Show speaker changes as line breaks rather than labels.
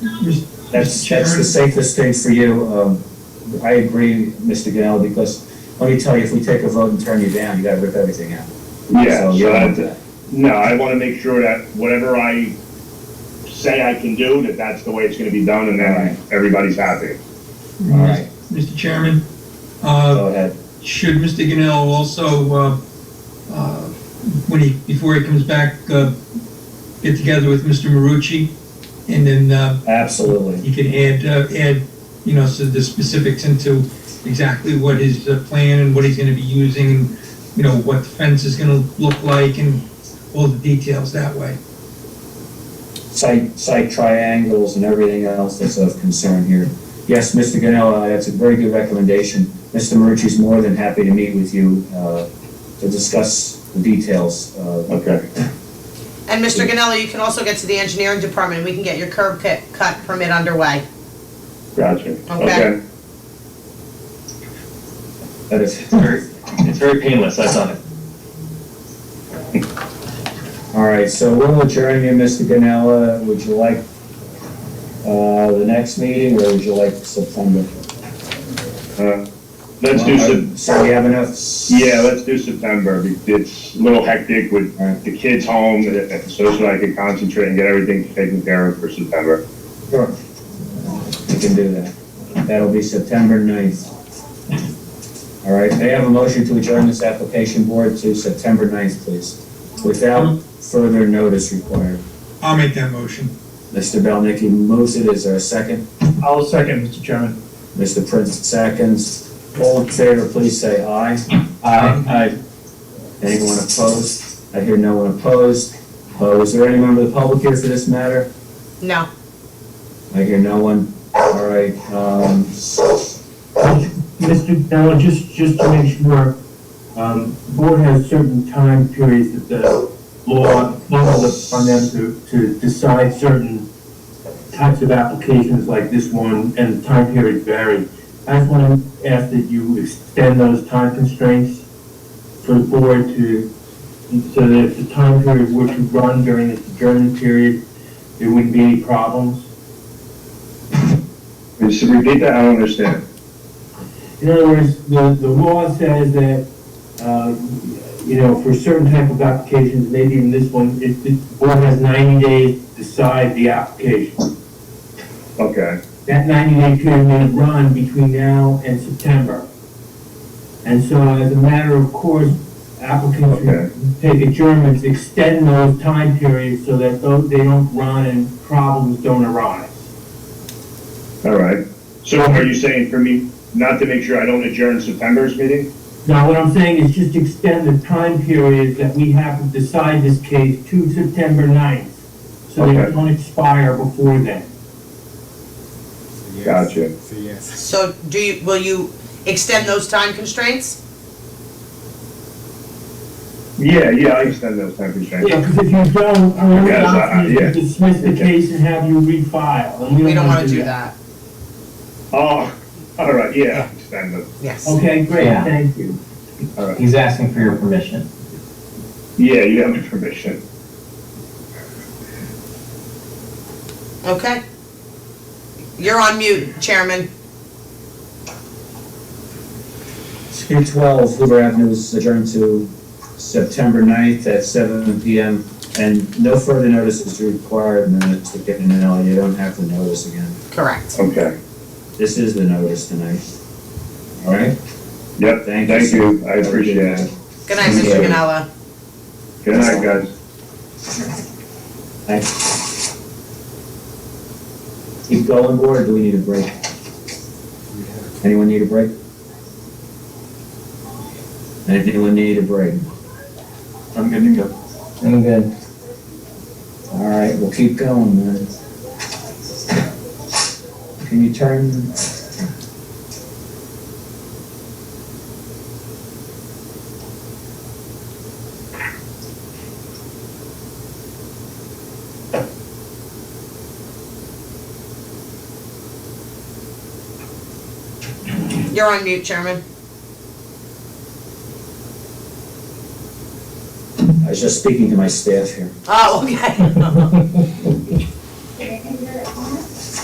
That's,
Mr.
that's the safest thing for you. Um, I agree, Mr. Gannell, because let me tell you, if we take a vote and turn you down, you gotta rip everything out.
Yeah,
So,
so
yeah.
I, no, I wanna make sure that whatever I say I can do, that that's the way it's gonna be done, and then everybody's happy.
All right,
Mr. Chairman, uh,
go ahead.
should Mr. Gannell also, uh, uh, when he, before he comes back, uh, get together with Mr. Marucci? And then uh,
Absolutely.
he can add, uh, add, you know, so the specifics into exactly what his uh, plan and what he's gonna be using, and, you know, what the fence is gonna look like and all the details that way.
Site, site triangles and everything else that's of concern here. Yes, Mr. Gannell, uh, that's a very good recommendation. Mr. Marucci's more than happy to meet with you, uh, to discuss the details, uh,
Okay.
And Mr. Ganelli, you can also get to the engineering department, and we can get your curb cut, cut permit underway.
Gotcha,
Okay.
okay.
that is,
Very- It's very painless, I thought.
All right, so we'll adjourn you, Mr. Ganella. Would you like uh, the next meeting, or would you like September?
Uh, Let's do Sep-
So we have enough?
yeah, let's do September, Be- it's a little hectic with
Alright.
the kids home, uh, so that I can concentrate and get everything taken care of for September.
Sure. We can do that. That'll be September 9th. All right, may I have a motion to adjourn this application board to September 9th, please? Without further notice required.
I'll make that motion.
Mr. Belnicki moves it. Is there a second?
I'll second, Mr. Chairman.
Mr. Prince seconds. All in favor, please say aye.
Aye.
Anyone opposed? I hear no one opposed. Uh, is there any member of the public here for this matter?
No.
I hear no one. All right, um,
Mr. Bell, just, just to make sure, um, the board has certain time periods that the law, law looks on them to, to decide certain types of applications like this one, and the time periods vary. I just want to ask that you extend those time constraints for the board to, so that if the time period were to run during this adjournment period, there wouldn't be any problems.
Just repeat that, I don't understand.
In other words, the, the law says that, uh, you know, for certain type of applications, maybe even this one, it, the board has ninety days to decide the application.
Okay,
That ninety day period may run between now and September. And so as a matter of course, applicants
Okay.
who take adjournments, extend those time periods so that those, they don't run and problems don't arise.
all right. So are you saying for me not to make sure I don't adjourn September's meeting?
Now, what I'm saying is just extend the time period that we have to decide this case to September 9th, so that
Okay.
it don't expire before then.
Gotcha.
So do you, will you extend those time constraints?
Yeah, yeah, I extend those time constraints.
Yeah, because if you don't, our only
Yes, I-
option is
yeah.
to dismiss the case and have you refile, and
We don't wanna do that.
Oh, all right, yeah, I extend them.
Yes.
Okay, great,
Yeah.
thank you.
He's asking for your permission.
Yeah, you have my permission.
Okay. You're on mute, Chairman.
two twelve Hoover Avenue is adjourned to September 9th at seven PM. And no further notice is required, and then it's given an L, you don't have to notice again.
Correct.
Okay,
This is the notice tonight. All right?
yep,
Thank you,
thank
sir.
you, I appreciate it.
Good night, Mr.
Okay.
Ganella.
Good night, guys.
Thanks. Keep going, board, or do we need a break? Anyone need a break? Anyone need a break?
I'm good to go. I'm good.
All right, we'll keep going, man. Can you turn?
You're on mute, Chairman.
I was just speaking to my staff here.
Oh, okay.